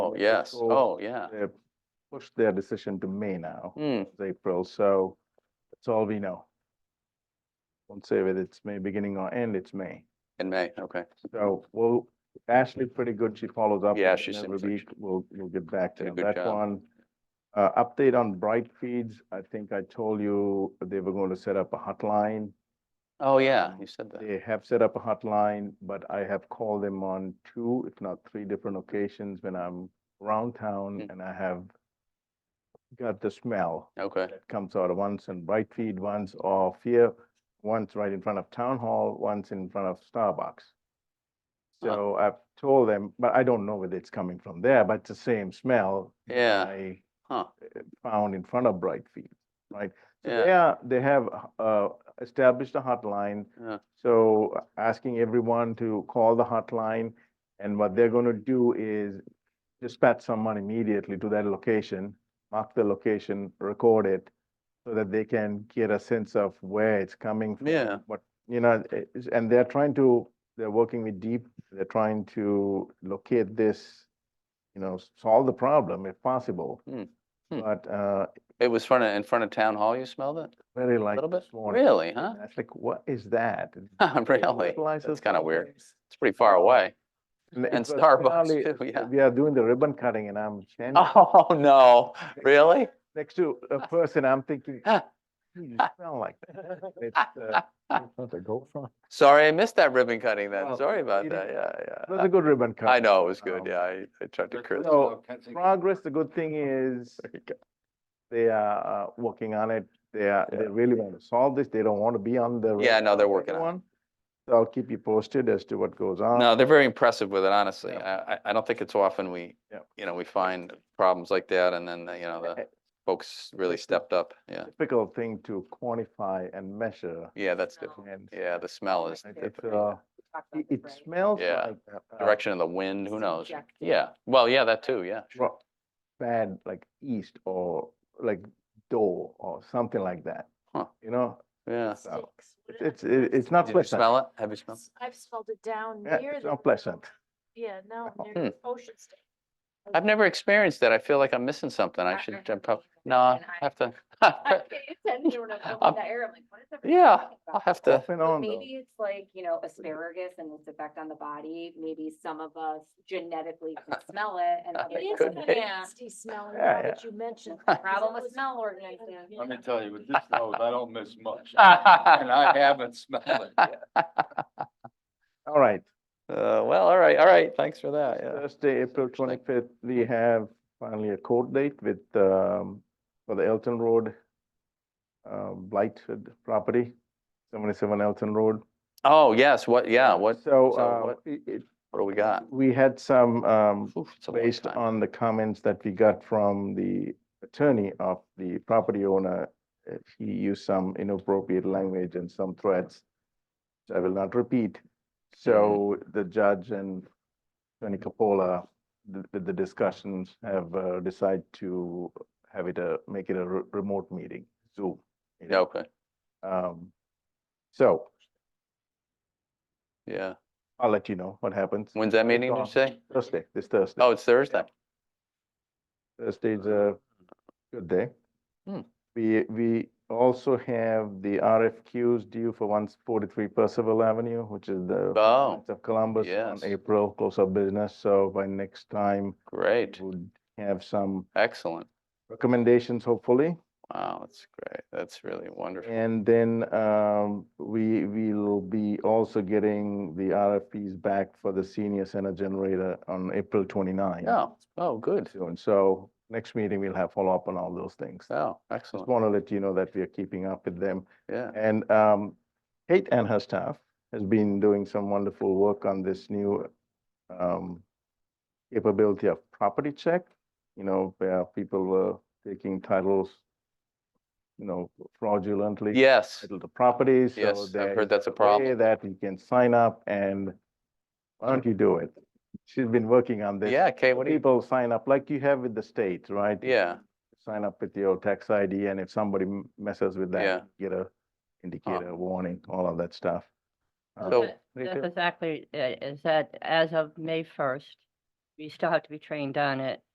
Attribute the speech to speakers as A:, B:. A: yes,
B: So
A: oh, yeah.
B: They pushed their decision to May now,
A: Hmm,
B: it's April, so that's all we know. Won't say whether it's May beginning or end, it's May.
A: in May, okay.
B: So, well, Ashley, pretty good. She follows up.
A: Yeah,
B: with
A: she
B: it
A: seems
B: Every
A: like
B: week, we'll, we'll get back
A: Did a
B: to
A: good
B: that
A: job.
B: one. Uh, update on Bright Feeds. I think I told you they were going to set up a hotline.
A: Oh, yeah,
B: Um,
A: you said that.
B: They have set up a hotline, but I have called them on two, if not three different occasions when I'm around town
A: Mm.
B: and I have got the smell
A: Okay,
B: that comes out of once in Bright Feed, once off here, once right in front of Town Hall, once in front of Starbucks.
A: Huh.
B: So I've told them, but I don't know whether it's coming from there, but it's the same smell. that
A: Yeah.
B: I eh,
A: huh,
B: found in front of Bright Feed, right? So
A: yeah,
B: they are, they have uh, established a hotline
A: yeah,
B: so uh, asking everyone to call the hotline, and what they're gonna do is dispatch someone immediately to that location, mark the location, record it, so that they can get a sense of where it's coming from.
A: Yeah.
B: What, you know, it- it's- and they're trying to, they're working with Deep, they're trying to locate this, you know, solve the problem if possible.
A: Hmm. Hmm.
B: But, uh,
A: it was front of, in front of town hall, you smelled it
B: very
A: a
B: like
A: little bit?
B: this morning.
A: Really, huh?
B: That's like, what is that? And
A: Really?
B: fertilizer
A: That's kind of weird.
B: sometimes.
A: It's pretty far away.
B: it
A: And
B: was
A: Starbucks
B: finally-
A: too, yeah.
B: We are doing the ribbon cutting and I'm standing
A: Oh, no, really?
B: next to a person, I'm thinking,
A: Ah.
B: "Gee, you smell like that. It's, uh, It
A: Sorry, I missed that ribbon cutting then.
B: Well,
A: Sorry about
B: Oh, it
A: that, yeah, yeah.
B: was a good ribbon cut.
A: I know, it was good,
B: Um,
A: yeah, I, I tried to curse.
B: So progress, the good thing
A: Oh,
B: is they are uh, working on it. They are,
A: Yeah.
B: they really want to solve this. They don't want to be on the.
A: Yeah,
B: radar
A: no, they're
B: of
A: working on it.
B: everyone. So I'll keep you posted as to what goes on.
A: No, they're very impressive with it, honestly.
B: uh, Yeah.
A: I, I, I don't think it's often we,
B: Yeah.
A: you know, we find problems like that and then, uh, you know, the
B: A-
A: folks really
B: it's-
A: stepped up, yeah.
B: Difficult thing to quantify and measure
A: Yeah, that's different.
B: and.
A: Yeah, the smell is,
B: it-
A: different,
B: It's,
A: yeah.
B: uh, it, it smells
A: Yeah.
B: like. uh, uh,
A: direction of the wind, who knows?
C: subjective.
A: Yeah, well, yeah, that too, yeah. sure.
B: ro- bad like east or like door or something like that.
A: Huh.
B: You know,
A: Yeah.
B: so it's- it's, it- it's not
A: Did you
B: pleasant.
A: smell it? Have you smelled?
C: I've spelled it down
B: Yeah,
C: near
B: It's
C: the,
B: not pleasant.
C: yeah, no,
B: Oh.
A: Hmm.
C: near Ocean State.
A: I've never experienced that. I feel like I'm missing something. I
C: I-
A: should,
C: I
A: uh,
C: haven't
A: prob-
C: either,
A: no, I
C: and I-
A: have to.
C: I pay attention when I'm
A: I'm-
C: going that area, I'm like, what is everyone
A: Yeah,
C: talking
A: I'll
C: about?
A: have to,
B: Off and on though.
D: Maybe it's like, you know, asparagus and its effect on the body. Maybe some of us genetically can smell it and
C: It
D: others
C: is
A: Could
C: kind
D: don't.
A: be.
C: of nasty smelling
B: Yeah,
C: now
B: yeah.
C: that you mentioned.
A: The
D: Problem with smell ordinances.
E: Let me tell you, with this nose, I don't miss much. And I haven't smelled it yet.
B: All right,
A: uh, well, all right, all right. Thanks for that, yeah.
B: Thursday, April twenty-fifth, we have finally a court date with, um, for the Elton Road uh, blighted property, seventy-seven Elton Road.
A: Oh, yes, what, yeah, what,
B: So,
A: so
B: uh,
A: what-
B: it, it,
A: what do we got?
B: we had some, um,
A: Oof, it's a long
B: based
A: time.
B: on the comments that we got from the attorney of the property owner, uh, he used some inappropriate language and some threats. which I will not repeat. So the judge and Tony Capola, the, the- the discussions have uh, decided to have it a, make it a re- remote meeting, Zoom. meeting.
A: Yeah, Okay,
B: Um, So
A: yeah.
B: I'll let you know what happens.
A: When's that meeting, did you
B: on
A: say?
B: Thursday, this Thursday.
A: Oh, it's Thursday.
B: Thursday's a Uh, good day.
A: Uh, Hmm.
B: We, we also have the RFQs due for one forty-three Percival Avenue, which is the
A: Oh,
B: Knights of Columbus
A: yes.
B: on April, close of business. So by next time,
A: Great,
B: we'll have some
A: excellent.
B: recommendations, hopefully.
A: Wow, that's great. That's really wonderful.
B: And then um, we will be also getting the RFPs back for the senior center generator on April 29.
A: Oh, oh, good.
B: Soon. So next meeting, we'll have follow-up on all those things.
A: Oh,
B: Just
A: excellent,
B: want to let you know that we are keeping up with them.
A: yeah.
B: And um, Kate and her staff has been doing some wonderful work on this new um, capability of property check, you know, where people were taking titles, you know, fraudulently.
A: Yes,
B: Title to properties. so
A: yes, I've
B: there
A: heard
B: is
A: that's a
B: way
A: problem.
B: That you can sign up and why don't you do it? She's been working on this.
A: Yeah, Kate, what do you,
B: People sign up like you have with the state, right?
A: yeah,
B: sign up with your tax ID, and if somebody m- messes with
A: Yeah. Uh.
B: that, you get a indicator, warning, all of that stuff. Uh,
A: So-
F: That- That's
B: Rachel?
F: exactly, uh, is that as of May first, you still have to be trained on it